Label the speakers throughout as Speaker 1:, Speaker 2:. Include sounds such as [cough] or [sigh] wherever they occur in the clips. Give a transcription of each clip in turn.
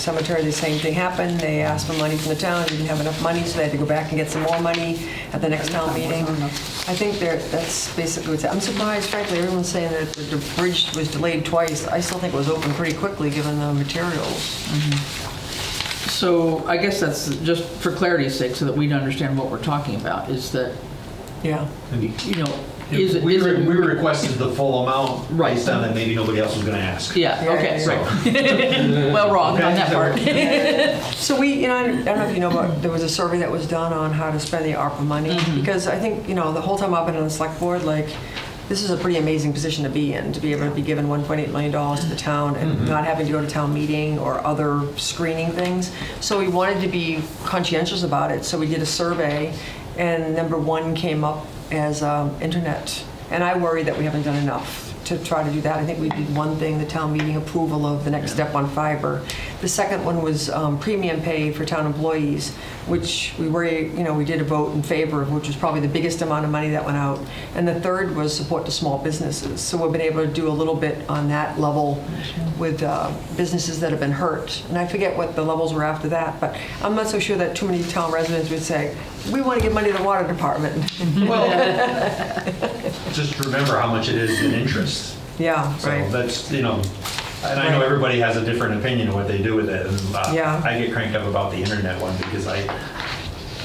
Speaker 1: cemetery, the same thing happened. They asked for money from the town, didn't have enough money, so they had to go back and get some more money at the next town meeting. I think there, that's basically what's, I'm surprised frankly, everyone's saying that the bridge was delayed twice. I still think it was open pretty quickly, given the materials.
Speaker 2: So I guess that's just for clarity's sake, so that we'd understand what we're talking about, is that,
Speaker 1: Yeah.
Speaker 2: you know, is it,
Speaker 3: We
Speaker 2: is
Speaker 3: re-
Speaker 2: it?
Speaker 3: we requested the full amount
Speaker 2: Right.
Speaker 3: based on that maybe nobody else was going to ask.
Speaker 2: Yeah,
Speaker 1: Yeah,
Speaker 2: okay,
Speaker 1: yeah, [laughs]
Speaker 2: right. Well, wrong on that part.
Speaker 1: So we, you know, I don't know if you know, but there was a survey that was done on how to spend the ARPA money. Because I think, you know, the whole time I've been on the select board, like, this is a pretty amazing position to be in, to be able to be given $1.8 million to the town and not having to go to town meeting or other screening things. So we wanted to be conscientious about it, so we did a survey, and number one came up as um, internet. And I worry that we haven't done enough to try to do that. I think we did one thing, the town meeting approval of the next step on fiber. The second one was um, premium pay for town employees, which we were, you know, we did a vote in favor of, which was probably the biggest amount of money that went out. And the third was support to small businesses. So we've been able to do a little bit on that level with uh, businesses that have been hurt. And I forget what the levels were after that, but I'm not so sure that too many town residents would say, we want to give money to the water department. [laughs]
Speaker 3: Well, just remember how much it is in interest.
Speaker 1: Yeah,
Speaker 3: So
Speaker 1: right.
Speaker 3: that's, you know, and I know everybody has a different opinion of what they do with it. And uh,
Speaker 1: Yeah.
Speaker 3: I get cranked up about the internet one because I,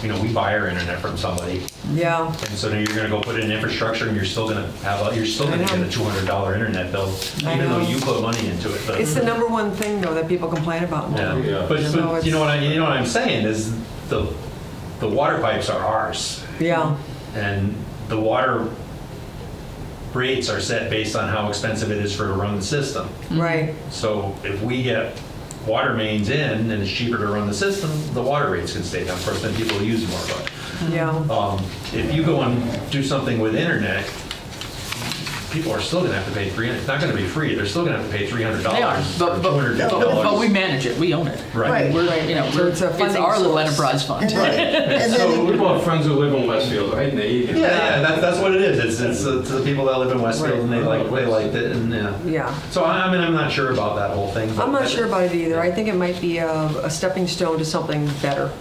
Speaker 3: you know, we buy our internet from somebody.
Speaker 1: Yeah,
Speaker 3: And so now you're going to go put in infrastructure and you're still going to have, a- you're still
Speaker 1: I
Speaker 3: going to get a
Speaker 1: know.
Speaker 3: $200 internet bill,
Speaker 1: I
Speaker 3: even though
Speaker 1: know.
Speaker 3: you put money into it. but-
Speaker 1: it's the number one thing, though, that people complain about. in town.
Speaker 3: Yeah, but,
Speaker 1: So
Speaker 3: but you know what I, you know what I'm saying is the, the water pipes are ours
Speaker 1: Yeah,
Speaker 3: and the water rates are set based on how expensive it is for to run the system.
Speaker 4: Mm-hmm.
Speaker 1: right.
Speaker 3: So if we get water mains in and it's cheaper to run the system, the water rates can stay down. Of course, then people will use more, but
Speaker 4: Mm-hmm.
Speaker 1: Yeah,
Speaker 3: um, if you go and do something with internet, people are still gonna have to pay three, it's not gonna be free, they're still gonna have to pay three hundred
Speaker 2: They are,
Speaker 3: dollars.
Speaker 2: but, but, but- but we manage it, we own it.
Speaker 3: Right.
Speaker 2: We're,
Speaker 1: Right.
Speaker 2: you know,
Speaker 1: So
Speaker 2: we're-
Speaker 1: it's
Speaker 2: it's
Speaker 1: a funding
Speaker 2: our little
Speaker 1: source.
Speaker 2: enterprise fund.
Speaker 4: And
Speaker 5: So
Speaker 4: then,
Speaker 5: we've got friends who live in Westfield, right? And they eat it.
Speaker 3: Yeah, yeah, that's, that's what it is. It's, it's the, to the people that live in Westfield and they like, they liked it and, yeah.
Speaker 1: yeah.
Speaker 3: So I, I mean, I'm not sure about that whole thing. but-
Speaker 1: I'm not sure about it either. I think it might be a, a stepping stone to something better.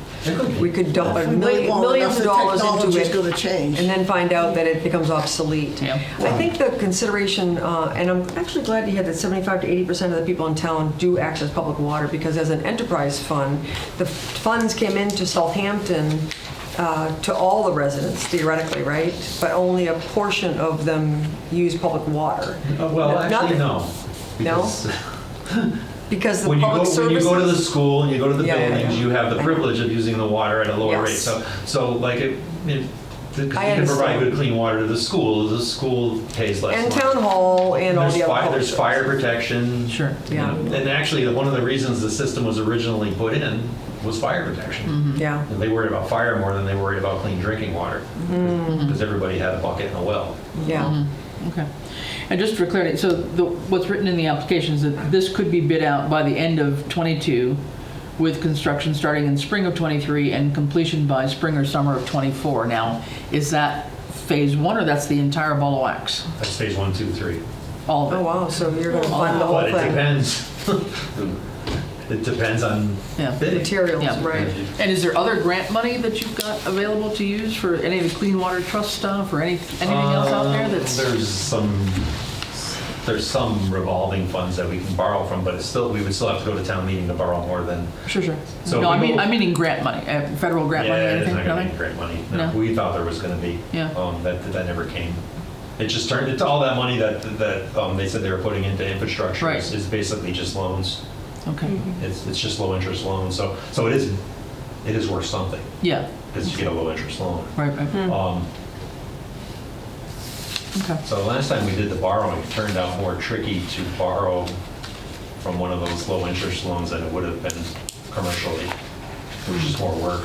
Speaker 1: We could dump a
Speaker 4: we wait
Speaker 1: million,
Speaker 4: long enough,
Speaker 1: millions
Speaker 4: the
Speaker 1: of dollars into
Speaker 4: technology's
Speaker 1: it.
Speaker 4: gonna change.
Speaker 1: And then find out that it becomes obsolete.
Speaker 2: Yeah.
Speaker 1: I think the consideration, uh, and I'm actually glad to hear that 75 to 80% of the people in town do access public water, because as an enterprise fund, the funds came into Southampton uh, to all the residents theoretically, right? But only a portion of them use public water.
Speaker 3: Uh, Well,
Speaker 1: Not-
Speaker 3: actually, no.
Speaker 1: No?
Speaker 3: Because
Speaker 1: Because the
Speaker 3: When you
Speaker 1: public
Speaker 3: go, when you
Speaker 1: services.
Speaker 3: go to the school and you go to the
Speaker 1: Yeah, yeah,
Speaker 3: buildings,
Speaker 1: yeah.
Speaker 3: you have the
Speaker 1: I know.
Speaker 3: privilege of using the water at a lower rate.
Speaker 1: Yes.
Speaker 3: So, so like it, it, because you
Speaker 1: I
Speaker 3: can provide
Speaker 1: understand.
Speaker 3: good clean water to the school, the school pays less.
Speaker 1: And
Speaker 3: money.
Speaker 1: town hall and all
Speaker 3: There's
Speaker 1: the other.
Speaker 3: fire,
Speaker 1: public
Speaker 3: there's fire protection.
Speaker 2: Sure.
Speaker 3: you
Speaker 1: Yeah.
Speaker 3: know. And actually, one of the reasons the system was originally put in was fire protection.
Speaker 1: services. Yeah,
Speaker 3: And they worried about fire more than they worried about clean drinking water,
Speaker 2: Mm.
Speaker 3: because everybody had a bucket and a well.
Speaker 1: yeah.
Speaker 2: Mm-hmm. Okay. And just for clarity, so the, what's written in the application is that this could be bid out by the end of '22 with construction starting in spring of '23 and completion by spring or summer of '24. Now, is that phase one or that's the entire ball of wax?
Speaker 3: That's phase one, two, three.
Speaker 2: All of it?
Speaker 1: Oh, wow, so you're gonna fund the whole
Speaker 3: But it
Speaker 1: thing.
Speaker 3: depends. [laughs] It depends on
Speaker 2: Yeah.
Speaker 3: bidding.
Speaker 1: Materials,
Speaker 2: Yeah.
Speaker 1: right.
Speaker 2: And is there other grant money that you've got available to use for any of the Clean Water Trust stuff or any, anything else out there
Speaker 3: Um,
Speaker 2: that's?
Speaker 3: There's some, there's some revolving funds that we can borrow from, but it's still, we would still have to go to town meeting to borrow more than.
Speaker 2: Sure, sure.
Speaker 3: So
Speaker 2: No, I
Speaker 3: we
Speaker 2: mean,
Speaker 3: will-
Speaker 2: I mean in grant money, uh, federal grant money,
Speaker 3: Yeah, it's
Speaker 2: anything,
Speaker 3: not gonna be
Speaker 2: nothing?
Speaker 3: grant money. No,
Speaker 2: No.
Speaker 3: we thought there was gonna be.
Speaker 2: Yeah.
Speaker 3: Um, that, that never came. It just turned, it's all that money that, that, um, they said they were putting into infrastructure
Speaker 2: Right.
Speaker 3: is is basically just loans.
Speaker 2: Okay,
Speaker 3: It's, it's just low interest loans, so, so it is, it is worth something,
Speaker 2: yeah,
Speaker 3: because you get a low interest loan.
Speaker 2: right, right,
Speaker 3: Um,
Speaker 2: okay.
Speaker 3: So last time we did the borrowing, it turned out more tricky to borrow from one of those low-interest loans than it would have been commercially, which is more work.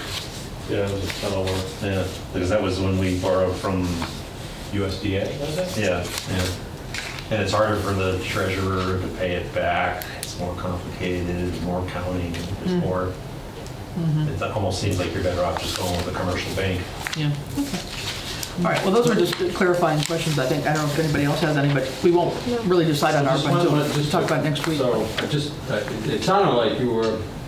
Speaker 5: Yeah, it was a ton of work.
Speaker 3: Yeah, because that was when we borrowed from,
Speaker 5: USDA, was it?
Speaker 3: yeah, yeah. And it's harder for the treasurer to pay it back. It's more complicated, it's more counting, it's more, it almost seems like you're better off just going with a commercial bank.
Speaker 2: Yeah. All right, well, those were just clarifying questions, I think. I don't know if anybody else has any, but we won't really decide on our,
Speaker 5: Just one-
Speaker 2: budget.
Speaker 5: just-
Speaker 2: talk about it next week.
Speaker 5: So, I just, I- it sounded like you were